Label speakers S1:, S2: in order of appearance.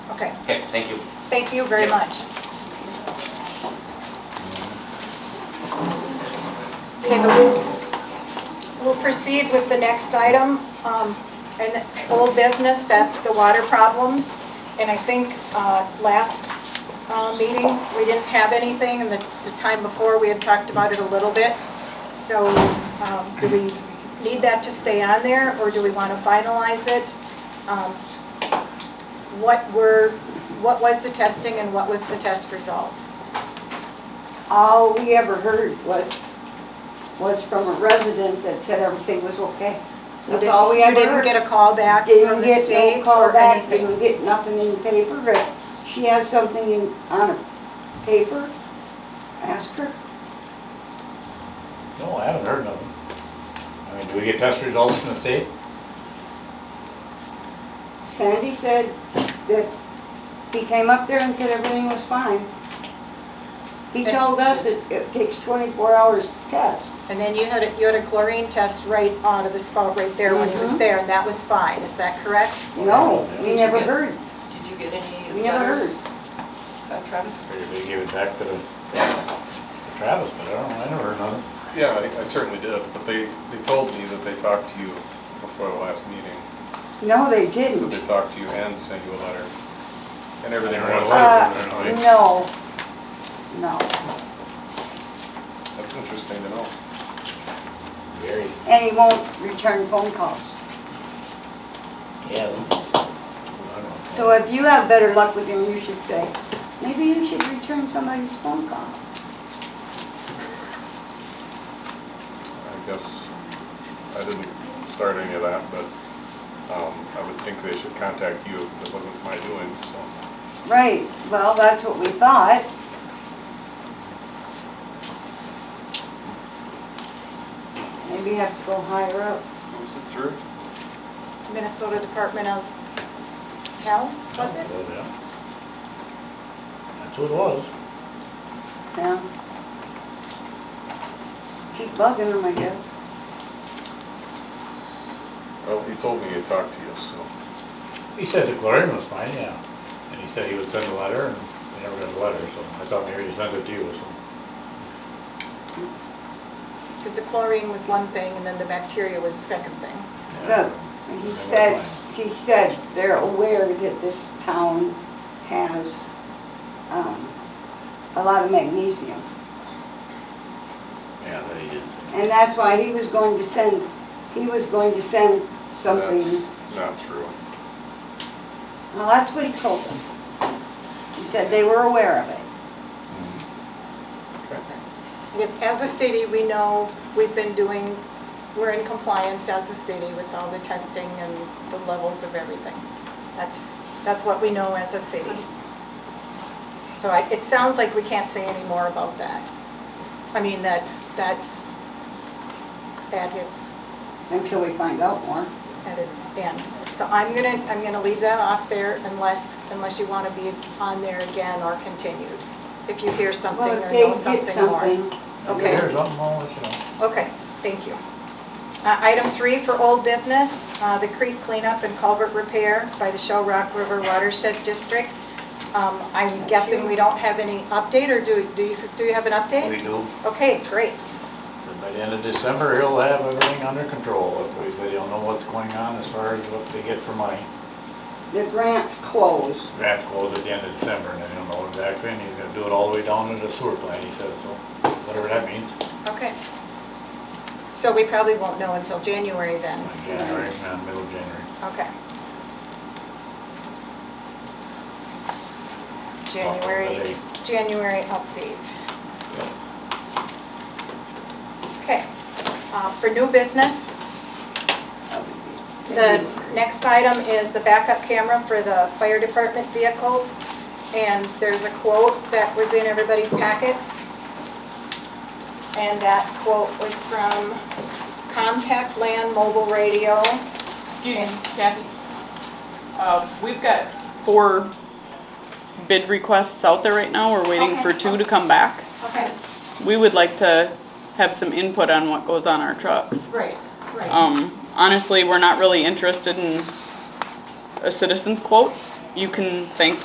S1: Okay,
S2: Okay, thank you.
S1: thank you very
S2: Yeah.
S1: much. Okay, but we'll, we'll proceed with the next item, um, and old business, that's the water problems. And I think, uh, last, uh, meeting, we didn't have anything, and the, the time before, we had talked about it a little bit. So, um, do we need that to stay on there, or do we want to finalize it? Um, What were, what was the testing and what was the test results?
S3: All we ever heard was, was from a resident that said everything was okay.
S1: You
S3: That's
S1: didn't-
S3: all we ever
S1: You didn't
S3: heard.
S1: get a call back from
S3: Didn't
S1: the
S3: get no
S1: state
S3: call
S1: or
S3: back,
S1: anything?
S3: didn't get nothing in paper. If she has something in, on a paper, ask her.
S4: No, I haven't heard nothing. I mean, do we get test results from the state?
S3: Sandy said that he came up there and said everything was fine. He
S1: Okay.
S3: told us that it takes 24 hours to test.
S1: And then you had, a- you had a chlorine test right out of the spout right there when he was
S3: Mhm.
S1: there, and that was fine, is that correct?
S3: No, we
S5: you
S3: never
S5: get-
S3: heard,
S5: Did you get any?
S3: we never
S5: letters,
S3: heard.
S5: uh, Travis?
S4: Or did we give it back to the to Travis, but I don't, I never heard nothing.
S6: Yeah, I- I certainly did, but they, they told me that they talked to you before the last meeting.
S3: No, they
S6: So
S3: didn't.
S6: they talked to you and sent you a letter and everything.
S4: I don't know.
S6: else.
S3: Uh, no, no.
S6: That's interesting to know.
S4: Very.
S3: And he won't return phone calls.
S4: Yeah. I don't know.
S3: So if you have better luck with him, you should say, maybe you should return somebody's phone call.
S6: I guess I didn't start any of that, but um, I would think they should contact you. It wasn't my doing, so.
S3: Right, well, that's what we thought. Maybe you have to go higher up.
S6: Who's it through?
S1: Minnesota Department of Health, was it?
S4: Yeah. That's what it was.
S3: Yeah. Keep bugging him, I guess.
S6: Well, he told me he talked to you, so.
S4: He said the chlorine was fine, yeah. And he said he would send a letter, and he never got a letter, so I thought maybe he sent it to you or something.
S1: Because the chlorine was one thing, and then the bacteria was the second thing.
S3: Look, and he said, he said they're aware that this town has, um, a lot of magnesium.
S4: Yeah, but he didn't say.
S3: And that's why he was going to send, he was going to send something.
S6: That's not true.
S3: Well, that's what he told us. He said they were aware of it.
S1: Because as a city, we know we've been doing, we're in compliance as a city with all the testing and the levels of everything. That's, that's what we know as a city. So I, it sounds like we can't say any more about that. I mean, that, that's at its,
S3: Until we find out more.
S1: at its end. So I'm gonna, I'm gonna leave that off there unless, unless you wanna be on there again or continued. If you hear something
S3: Well,
S1: or
S3: if
S1: know
S3: they get
S1: something more.
S3: something,
S4: If
S1: Okay.
S4: you hear something, I'll let you know.
S1: Okay, thank you. Uh, Item three for old business, uh, the creek cleanup and culvert repair by the Shell Rock River Watershed District. Um, I'm guessing we don't have any update, or do do you do you have an
S4: We
S1: update?
S4: do.
S1: Okay, great.
S4: So By the end of December, he'll have everything under control. If we- They don't know what's going on as far as what they get for money.
S3: the grant's closed.
S4: That's closed at the end of December, and they don't know exactly, and he's gonna do it all the way down to the sewer plant, he said, so, whatever that means.
S1: Okay. So we probably won't know until January then.
S4: Like January, around middle of January.
S1: Okay. January, January update. Okay, uh, for new business, the next item is the backup camera for the fire department vehicles. And there's a quote that was in everybody's packet. And that quote was from Contact Land Mobile Radio.
S7: Excuse me, Kathy. Uh, We've got four bid requests out there right now. We're waiting for
S1: Okay.
S7: two to come back.
S1: Okay,
S7: We would like to have some input on what goes on our trucks.
S1: right, right.
S7: Um, honestly, we're not really interested in a citizen's quote. You can thank